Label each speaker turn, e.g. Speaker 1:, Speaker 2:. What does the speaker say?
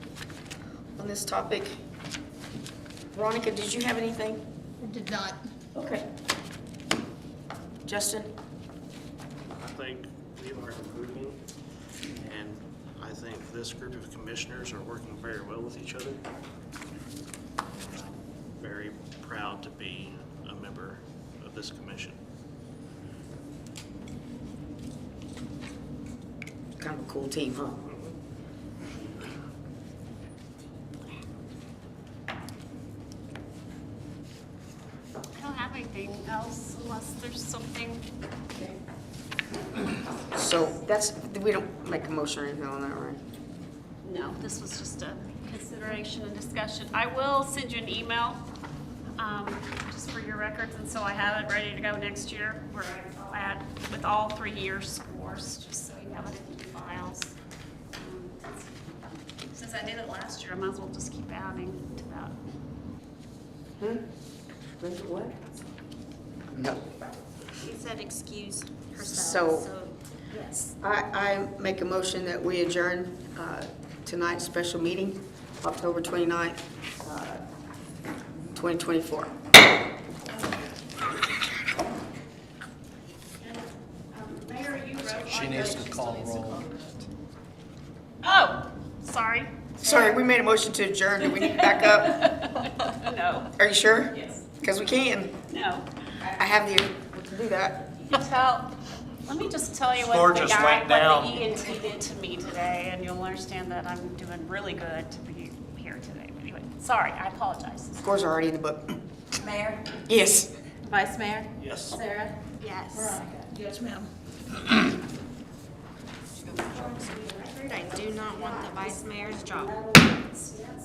Speaker 1: on this topic. Veronica, did you have anything?
Speaker 2: I Did not.
Speaker 1: Okay. Justin?
Speaker 3: I think we are improving, and I think this group of commissioners are working very well with each other. Very proud to be a member of this commission.
Speaker 1: Kind of a cool team, huh?
Speaker 4: I don't have anything else unless there's something.
Speaker 1: So that's, we don't make a motion or anything on that, right?
Speaker 4: No, this was just a consideration and discussion. I will send you an email, um, just for your records, and so I have it ready to go next year, where I'll add with all three years scores, just so you have it in your files. Um, Since I did it last year, I might as well just keep adding to that.
Speaker 1: Hmm? What? No.
Speaker 4: She said excuse
Speaker 1: herself, So-
Speaker 4: yes.
Speaker 1: I, I make a motion that we adjourn uh, tonight's special meeting, October 29th, uh, 2024.
Speaker 4: Mayor, you wrote.
Speaker 5: She
Speaker 4: on
Speaker 5: needs
Speaker 4: there.
Speaker 5: to call roll.
Speaker 4: Oh, sorry.
Speaker 1: Sorry, we made a motion to adjourn. Do we need to back up?
Speaker 4: Oh, No.
Speaker 1: Are you sure?
Speaker 4: Yes.
Speaker 1: Because we can.
Speaker 4: No.
Speaker 1: I have the, we can do that.
Speaker 4: You tell, let me just tell you
Speaker 5: Score
Speaker 4: what the
Speaker 5: just
Speaker 4: guy,
Speaker 5: went
Speaker 4: what
Speaker 5: down.
Speaker 4: the ENT did to me today, and you'll understand that I'm doing really good to be here today. But Anyway, sorry, I apologize.
Speaker 1: Scores are already in the book.
Speaker 6: Mayor,
Speaker 1: Yes.
Speaker 6: Vice Mayor,
Speaker 3: Yes.
Speaker 6: Sarah,
Speaker 4: Yes.
Speaker 6: Veronica.
Speaker 2: Yes, ma'am.
Speaker 4: I do not want the vice mayor's job.